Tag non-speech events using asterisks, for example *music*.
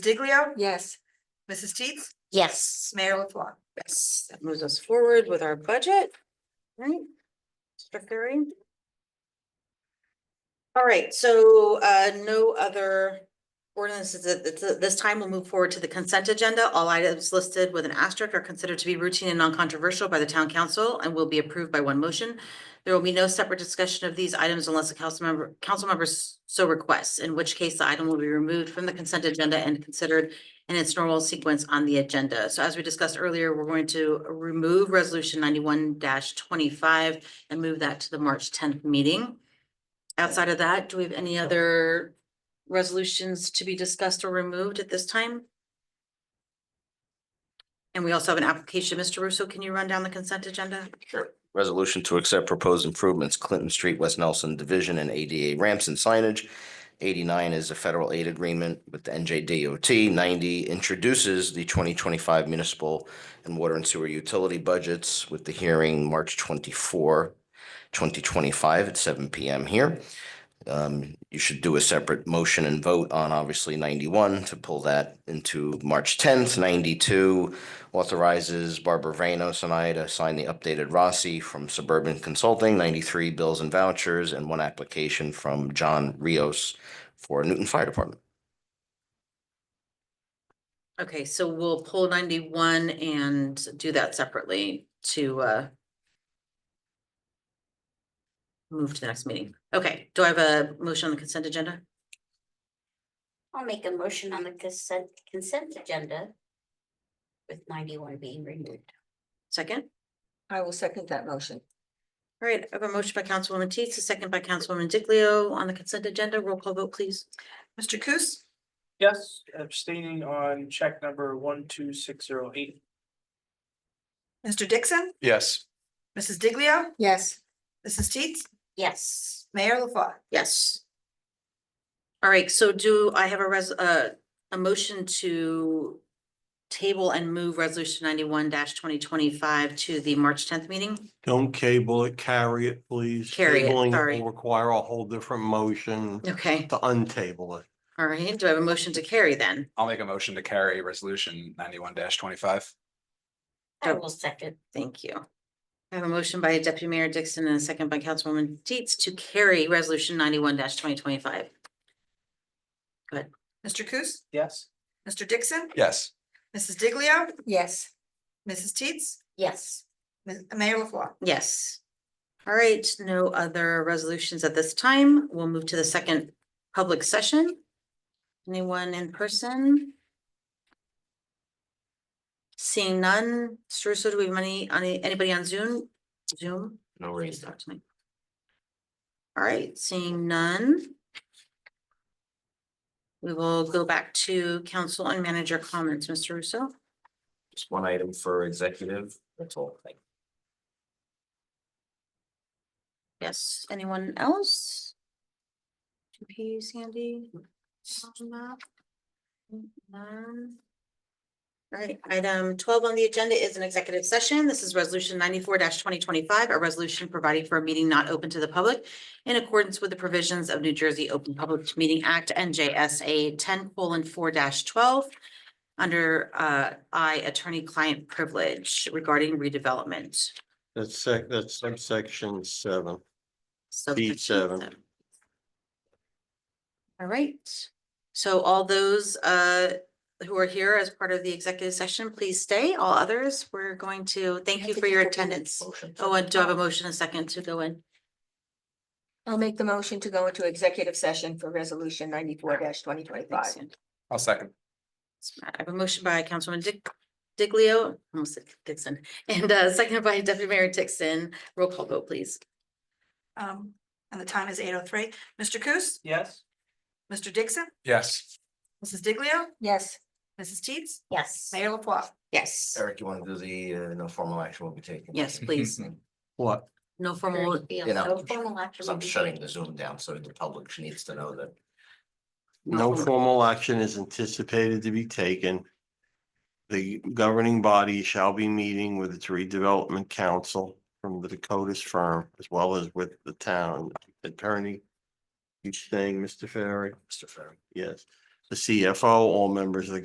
Diglio? Yes. Mrs. Teets? Yes, Mayor LaFois? Yes, that moves us forward with our budget. Right? Mr. Ferry? All right, so uh, no other ordinances at th- th- this time. We'll move forward to the consent agenda. All items listed with an asterisk are considered to be routine and non-controversial by the town council and will be approved by one motion. There will be no separate discussion of these items unless a council member, council members so requests, in which case the item will be removed from the consent agenda and considered in its normal sequence on the agenda. So as we discussed earlier, we're going to remove resolution ninety-one twenty-five and move that to the March tenth meeting. Outside of that, do we have any other resolutions to be discussed or removed at this time? And we also have an application. Mr. Russo, can you run down the consent agenda? Resolution to accept proposed improvements Clinton Street, West Nelson Division and ADA ramps and signage. Eighty-nine is a federal aid agreement with the NJDOT. Ninety introduces the twenty twenty-five municipal and water and sewer utility budgets with the hearing March 24, 2025 at seven P M here. Um, you should do a separate motion and vote on obviously ninety-one to pull that into March tenth, ninety-two authorizes Barbara Vanos and I to sign the updated Rossi from Suburban Consulting, ninety-three bills and vouchers, and one application from John Rios for Newton Fire Department. Okay, so we'll pull ninety-one and do that separately to uh. Move to the next meeting. Okay, do I have a motion on the consent agenda? I'll make a motion on the consent, consent agenda. With ninety-one being removed. Second? I will second that motion. All right, I have a motion by Councilwoman Teets, a second by Councilwoman Diglio on the consent agenda. Roll call vote, please. Mr. Coos? Yes, abstaining on check number one, two, six, zero, eight. Mr. Dixon? Yes. Mrs. Diglio? Yes. Mrs. Teets? Yes, Mayor LaFois? Yes. All right, so do I have a res, uh, a motion to table and move resolution ninety-one twenty twenty-five to the March tenth meeting? Don't cable it, carry it, please. Carry it, Tabling will sorry. Require a whole different motion Okay, to untable it. all right. Do I have a motion to carry then? I'll make a motion to carry resolution ninety-one twenty-five. I Oh. will second. Thank you. I have a motion by Deputy Mayor Dixon and a second by Councilwoman Deets to carry resolution ninety-one twenty twenty-five. Mr. Coos? Yes. Mr. Dixon? Yes, Mrs. Diglio? Yes. Mrs. Teets? Yes, Ms- Mayor LaFois? Yes. All right, no other resolutions at this time. We'll move to the second public session. Anyone in person? Seeing none, Saruso, do we have any, any- anybody on Zoom? Zoom? No Please talk to me. All right, seeing none. We will go back to council and manager comments, Mr. Russo. Just one item for executive, that's all. Thank you. Yes, anyone else? GP, Sandy? Fatima? None. All right, item twelve on the agenda is an executive session. This is resolution ninety-four twenty twenty-five, a resolution providing for a meeting not open to the public in accordance with the provisions of New Jersey Open Public Meeting Act, NJSA ten four twelve, under uh, I attorney-client privilege regarding redevelopment. That's sec, that's subsection seven. So B seven. All right, so all those uh who are here as part of the executive session, please stay. All others, we're going to thank you for your attendance. Oh, and do I have a motion a second to go in? I'll make the motion to go into executive session for resolution ninety-four twenty Thanks, Ann. I'll second. I have a motion by Councilman Dick Diglio, almost said Dixon, and uh seconded by *laughs* Deputy Mayor Dixon. Roll call vote, please. Um, and the time is eight oh three. Mr. Coos? Yes. Mr. Dixon? Yes, Mrs. Diglio? Yes. Mrs. Teets? yes. Mayor LaFois? Yes, Eric, you want to do the, uh, no formal action will be taken? yes, *laughs* please. What? No Very formal, feel you know, so formal after Because I'm we- shutting the Zoom down, so the public needs to know that. No formal. formal action is anticipated to be taken. The governing body shall be meeting with its redevelopment council from the Dakotas firm as well as with the town attorney. Each thing, Mr. Ferry. Mr. Ferry. Yes, the CFO, all members of the